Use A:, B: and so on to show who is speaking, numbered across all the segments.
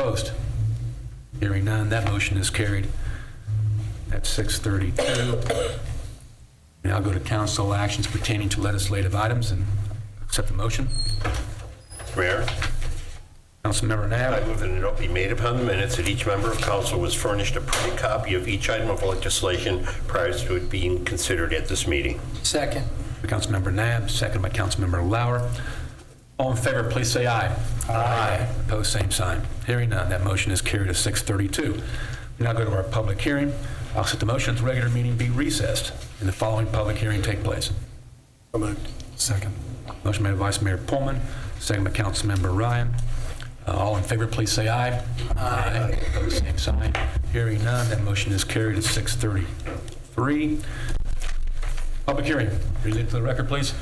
A: Opposed? Hearing none, that motion is carried at 6:32. Now go to council actions pertaining to legislative items and accept the motion.
B: Mayor,
A: Councilmember
B: I
A: Nab,
B: move that a note be made upon the minutes that each member of council was furnished a printed copy of each item of legislation prior to it being considered at this meeting.
C: Second.
A: by Councilmember Nab, second by Councilmember Lauer. All in favor, please say aye. Aye. Opposed, same sign. Hearing none, that motion is carried at 6:32. We now go to our public hearing. I'll set the motion's regular meeting be recessed and the following public hearing take place.
D: Second.
A: Motion made by Vice Mayor Pullman, second by Councilmember Ryan. Uh, All in favor, please say aye. Aye. Opposed, same sign. Hearing none, that motion is carried at 6:33. Public hearing, read it to the record, please.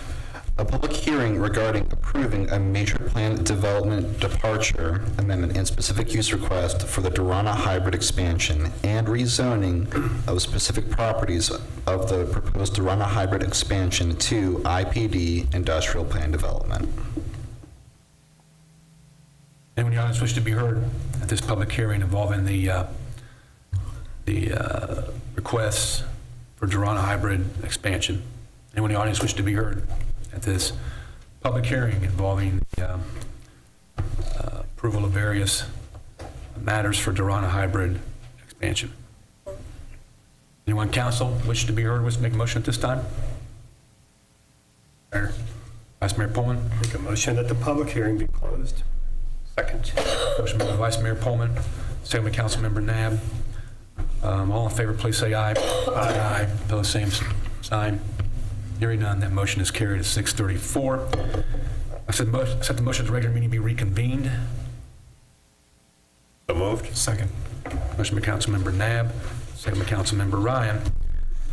E: A public hearing regarding approving a major plan development departure amendment and specific use request for the Durana hybrid expansion and rezoning of specific properties of the proposed Durana hybrid expansion to IPD industrial plan development.
A: Anyone in the audience wish to be heard at this public hearing involving the, uh, the uh, requests for Durana hybrid expansion? Anyone in the audience wish to be heard at this public hearing involving the um, uh, approval of various matters for Durana hybrid expansion? Anyone in council wish to be heard, wish to make a motion at this time? Mayor, Vice Mayor Pullman?
F: Make a motion that the public hearing be closed.
B: Second.
A: Motion by Vice Mayor Pullman, second by Councilmember Nab. Um, All in favor, please say aye. Aye. Opposed, same sign. Hearing none, that motion is carried at 6:34. I said, mo- accept the motion to regular meeting be reconvened.
B: So moved?
D: Second.
A: Motion by Councilmember Nab, second by Councilmember Ryan.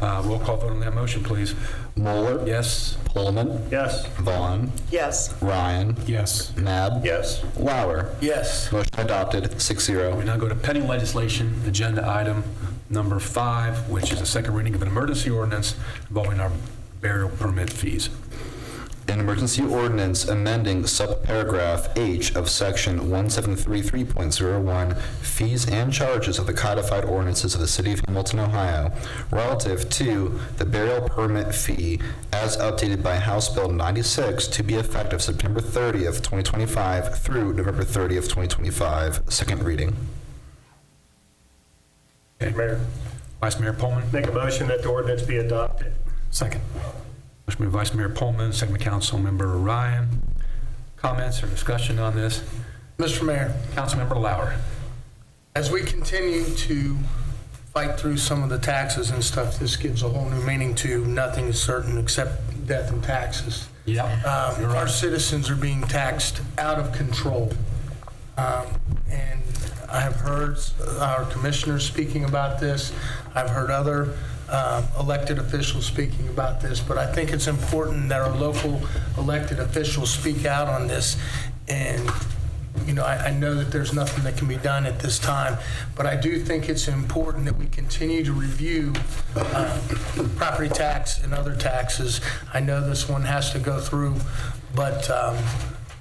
A: Uh, Roll call vote on that motion, please.
E: Moeller.
A: Yes?
E: Pullman.
F: Yes.
E: Vaughn.
C: Yes.
E: Ryan.
D: Yes.
E: Nab.
B: Yes.
E: Lauer.
C: Yes.
E: Motion adopted, six zero.
A: We now go to pending legislation, agenda item number five, which is a second reading of an emergency ordinance involving our burial permit fees.
E: An emergency ordinance amending subparagraph H of section 1733.01, fees and charges of the codified ordinances of the city of Hamilton, Ohio, relative to the burial permit fee as updated by House Bill 96 to be effective September 30th, 2025 through November 30th, 2025, second reading.
F: Mayor,
A: Vice Mayor Pullman?
F: make a motion that the ordinance be adopted.
D: Second.
A: Motion by Vice Mayor Pullman, second by Councilmember Ryan. Comments or discussion on this?
C: Mr. Mayor,
A: Councilmember Lauer.
C: as we continue to fight through some of the taxes and stuff, this gives a whole new meaning to nothing is certain except death and taxes.
A: Yep.
C: Um, Our citizens are being taxed out of control. Um, And I have heard our commissioners speaking about this. I've heard other um, elected officials speaking about this. But I think it's important that our local elected officials speak out on this. And, you know, I, I know that there's nothing that can be done at this time. But I do think it's important that we continue to review uh, property tax and other taxes. I know this one has to go through, but um,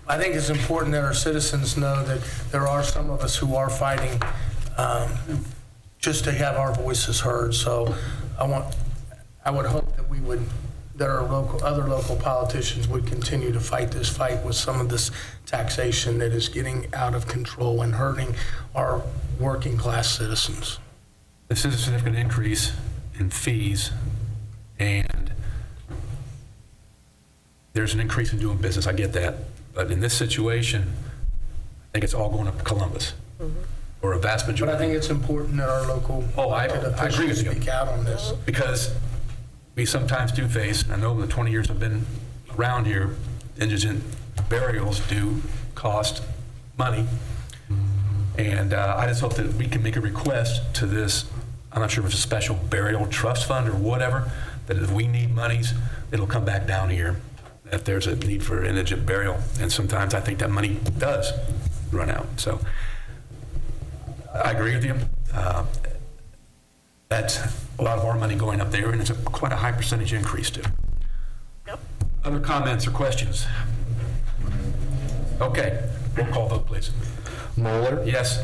C: I think it's important that our citizens know that there are some of us who are fighting um, just to have our voices heard. So I want, I would hope that we would, that our local, other local politicians would continue to fight this fight with some of this taxation that is getting out of control and hurting our working-class citizens.
A: This is a significant increase in fees, and there's an increase in doing business, I get that. But in this situation, I think it's all going up to Columbus, or a vast
C: But I
A: majority.
C: think it's important that our local
A: Oh, I-
C: elected
A: I agree
C: officials
A: with you.
C: speak out on this.
A: because we sometimes do face, and I know in the 20 years I've been around here, indigent burials do cost money. And uh, I just hope that we can make a request to this, I'm not sure if it's a special burial trust fund or whatever, that if we need monies, it'll come back down here if there's a need for indigent burial. And sometimes I think that money does run out. So I agree with you. Uh, that's a lot of our money going up there, and it's a- quite a high percentage increase, too. Other comments or questions? Okay, roll call vote, please.
E: Moeller.
A: Yes?